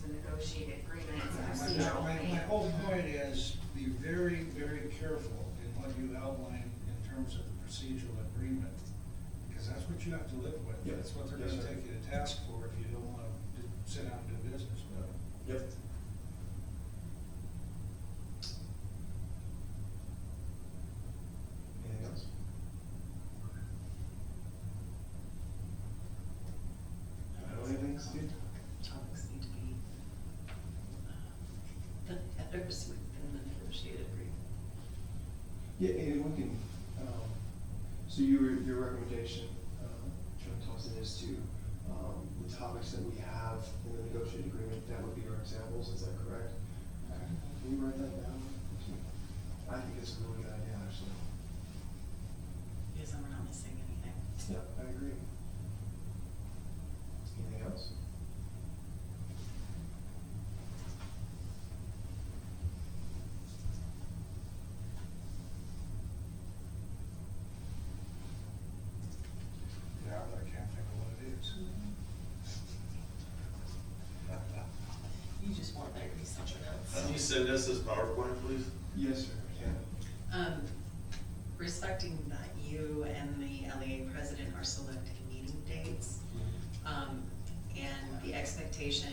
negotiated agreements and My, procedural my- my things. whole point is, be very, very careful in what you outline in terms of the procedural agreement, because that's what you have to live with. Yeah. That's what they're Yes, gonna sir. take you to task for if you don't wanna d- sit down and do business with them. Yep. Anything else? Anything, Steve? Topics need to be, uh, the headers within the negotiated agreement. Yeah, and we can, um, so your, your recommendation, um, Chairman Thompson, is to, um, the topics that we have in the negotiated agreement, that would be our examples, is that correct? Can you write that down? I think it's a really good idea, actually. Because then we're not missing anything. Yeah, I agree. Anything else? Yeah, but I can't think of what it is. You just want there to be something else. Can you send us this PowerPoint, please? Yes, sir. Yeah. Um, respecting that you and the LEA president are selecting meeting dates, um, and the expectation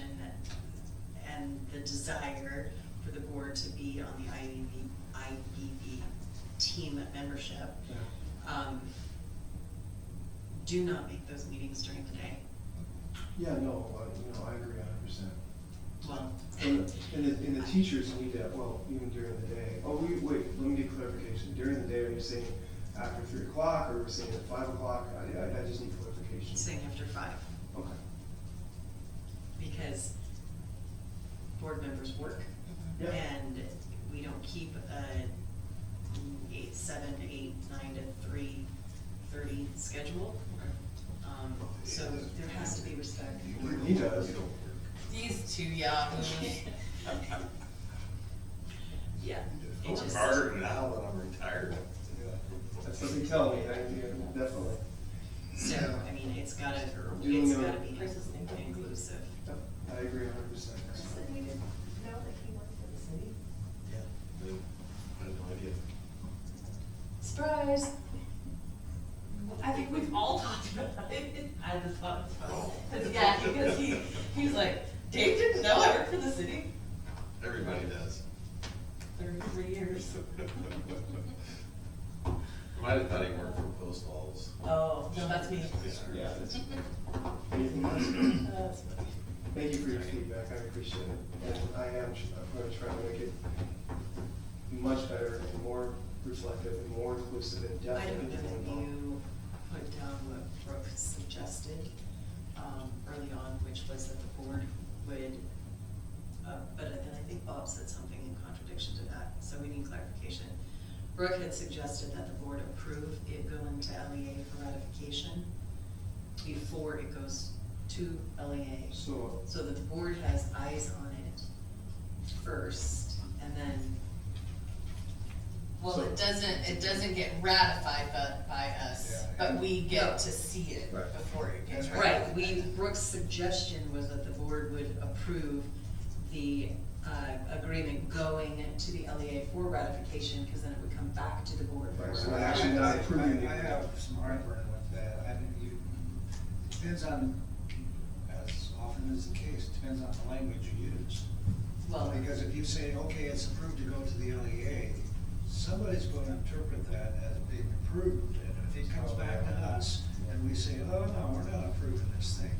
and the desire for the board to be on the E IBB, IBB E team membership, um, do not make those meetings during the day. Yeah, no, I, you know, I agree a hundred percent. Well, And the, and the- and the teachers need that, well, even during the day. Oh, we, wait, let me get clarification. During the day, are you saying after three o'clock, or we're saying at five o'clock? I, I, I just need clarification. saying after five, Okay. because board members work. Yeah. And we don't keep a eight, seven, eight, nine to three, thirty schedule. Um, so there has to be respect. He does. These two yahoos. Yeah. it I'm just- harder now that I'm retired. That's what they tell me, I, yeah, definitely. So, I mean, it's gotta, Do it's you know- gotta be inclusive. Yep, I agree a hundred percent. Sydney didn't know that he worked for the city? Yeah. I had no idea. Surprise! I think we've all talked about it. I just thought, because yeah, because he, he was like, Dave didn't know I worked for the city Everybody does. thirty-three years. Might have thought he worked for post halls. Oh, no, that's me. Yeah. that's- Anything else? That's me. Thank you for your feedback, I appreciate it. And I am, tr- I'm gonna try to make it much better and more reflective and more inclusive and I definitely. don't know that you put down what Brooke suggested um, early on, which was that the board would, uh, but then I think Bob said something in contradiction to that, so we need clarification. Brooke had suggested that the board approve it going to LEA for ratification before it goes to LEA, So, so that the board has eyes on it first, and then Well, it doesn't, it doesn't get ratified by, by us, Yeah. but we get to see it Right. before it gets That's Right, ratified. we, Brooke's suggestion was that the board would approve the uh, agreement going to the LEA for ratification, because then it would come back to the board. for Right, so I- we're actually not I- approving the I I have some heartburn with that, I mean, you, depends on, as often is the case, depends on the language you use. Well, Well, because if you say, okay, it's approved to go to the LEA, somebody's gonna interpret that as being approved, and if it comes back to us, and we say, oh, no, we're not approving this thing,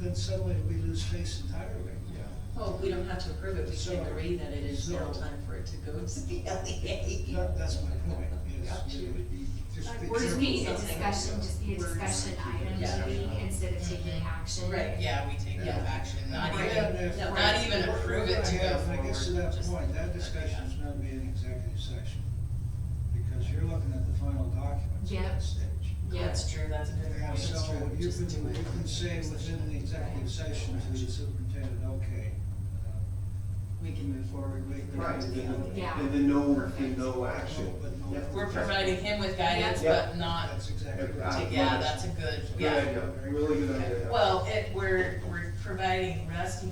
then suddenly we lose face entirely. yeah. well, we don't have to approve it, we So- can agree that it is now so- time for it to go to the E LEA. That, that's my point, is you would be, just be Or just be a careful. discussion, just be a discussion item, Yeah. maybe, instead of taking action. Right. Yeah, we take no Yeah. action, not Right. even, And if- no, not even we're- approve we're it to gonna go have- I guess to forward, that just- point, that discussion is gonna be an executive session, because you're looking at the final documents at Yep. that stage. Yeah, that's true, that's a good And so you Just do can, it. you can say within the executive session to the superintendent, okay, uh, We can move forward with the Right, to and the then, LEA. Yeah. and then no, and no action. But no- Yeah. We're providing him with guidance, Yeah. but not, that's exactly right. Yeah. yeah, that's a good, Good yeah. idea, really good idea. Well, it, we're, we're providing rescue